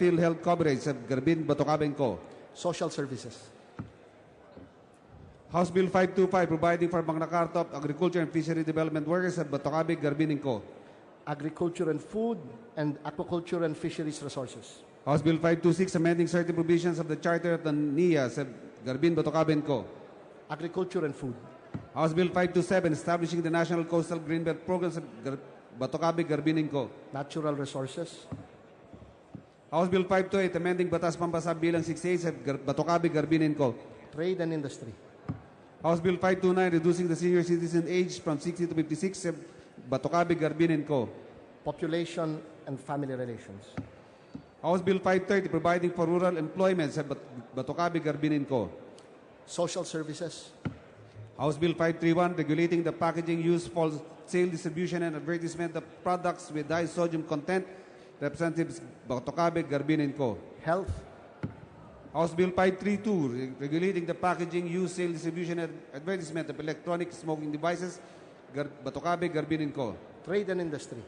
PhilHealth coverage at Garbin Batocabeng Co. social services, House Bill 525 providing for Magna Carta of Agriculture and Fishery Development Workers at Batocabeng Garbin and Co. agriculture and food, and aquaculture and fisheries resources, House Bill 526 amending certain provisions of the Charter of the NIAS at Garbin Batocabeng Co. agriculture and food, House Bill 527 establishing the National Coastal Greenbelt Programs at Gar- Batocabeng Garbin and Co. natural resources, House Bill 528 amending Batas Pampasab Bilang 68 at Gar- Batocabeng Garbin and Co. trade and industry, House Bill 529 reducing the senior citizen age from 60 to 56 at Batocabeng Garbin and Co. population and family relations, House Bill 530 providing for rural employment sa Bat- Batocabe, Garbin and Co. social services, House Bill 531 regulating the packaging used for sale, distribution, and advertisement of products with high sodium content. Representatives Batocabe, Garbin and Co. health, House Bill 532 re- regulating the packaging used, sale, distribution, and advertisement of electronic smoking devices. Gar- Batocabe, Garbin and Co. trade and industry,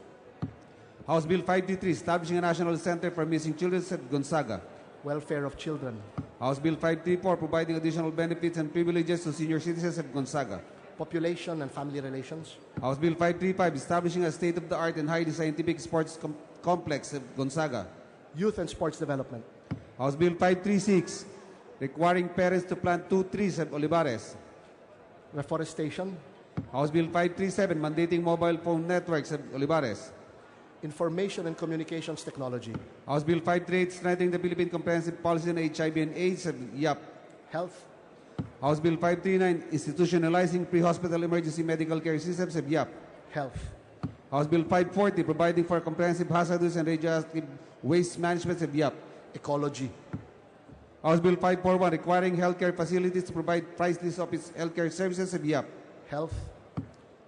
House Bill 533 establishing a national center for missing children at Gonzaga. welfare of children, House Bill 534 providing additional benefits and privileges to senior citizens of Gonzaga. population and family relations, House Bill 535 establishing a state-of-the-art and highly scientific sports com- complex of Gonzaga. youth and sports development, House Bill 536 requiring parents to plant two trees at Olivares. reforestation, House Bill 537 mandating mobile phone networks at Olivares. information and communications technology, House Bill 538 strengthening the Philippine comprehensive policy on HIV and AIDS at YAP. health, House Bill 539 institutionalizing pre-hospital emergency medical care systems at YAP. health, House Bill 540 providing for comprehensive hazardous and radioactive waste management at YAP. ecology, House Bill 541 requiring healthcare facilities to provide price list of its healthcare services at YAP. health,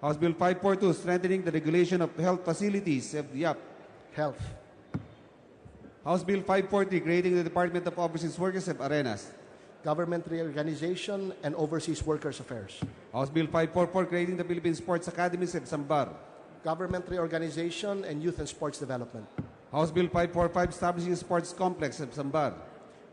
House Bill 542 strengthening the regulation of health facilities at YAP. health, House Bill 540 creating the Department of Overseas Workers at Arenas. government reorganization and overseas workers affairs. House Bill 544 creating the Philippine Sports Academies at Sambar. Government reorganization and youth and sports development, House Bill 545 establishing a sports complex at Sambar.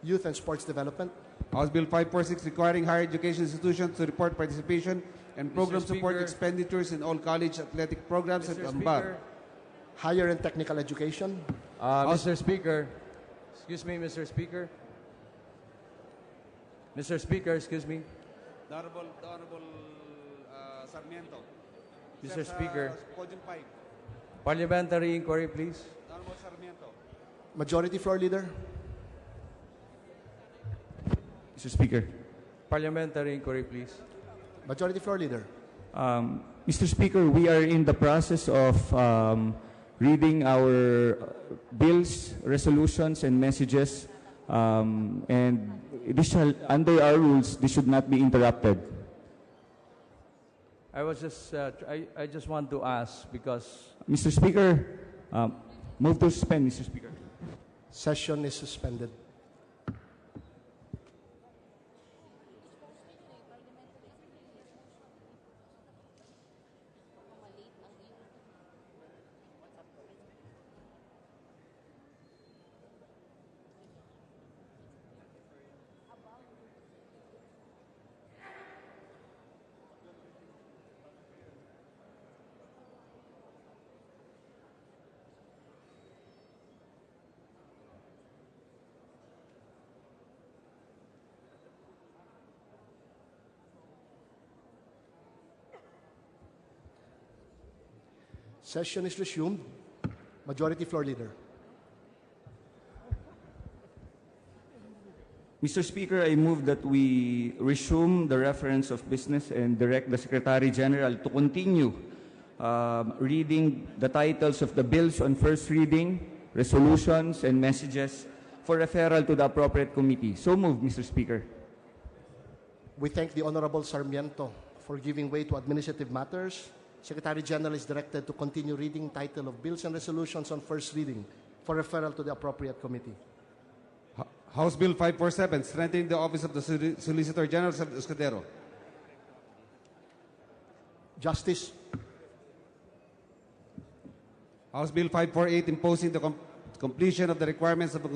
youth and sports development, House Bill 546 requiring higher education institutions to report participation and program support Speaker. expenditures in all college athletic programs at Mr. Ambar. Speaker, higher and technical education, uh, Mr. Speaker, excuse me, Mr. Speaker. Mr. Speaker, excuse me, Honorable, Honorable uh, Sarmiento. Mr. Speaker. Podium 5. Parliamentary inquiry, please. Honorable Sarmiento. majority floor leader, Mr. Speaker. Parliamentary inquiry, please. majority floor leader, Um, Mr. Speaker, we are in the process of um, reading our uh, bills, resolutions, and messages. Um, and this shall, under our rules, this should not be interrupted. I was just, uh, tr- I, I just want to ask because Mr. Speaker, um, move to suspend, Mr. Speaker. session is suspended. Session is resumed, majority floor leader, Mr. Speaker, I move that we resume the reference of business and direct the Secretary General to continue um, reading the titles of the bills on first reading, resolutions, and messages for referral to the appropriate committee. So moved, Mr. Speaker. we thank the Honorable Sarmiento for giving way to administrative matters. Secretary General is directed to continue reading title of bills and resolutions on first reading for referral to the appropriate committee. House Bill 547 strengthening the office of the Soli- Solicitor General of Escudero. Justice, House Bill 548 imposing the com- completion of the requirements of the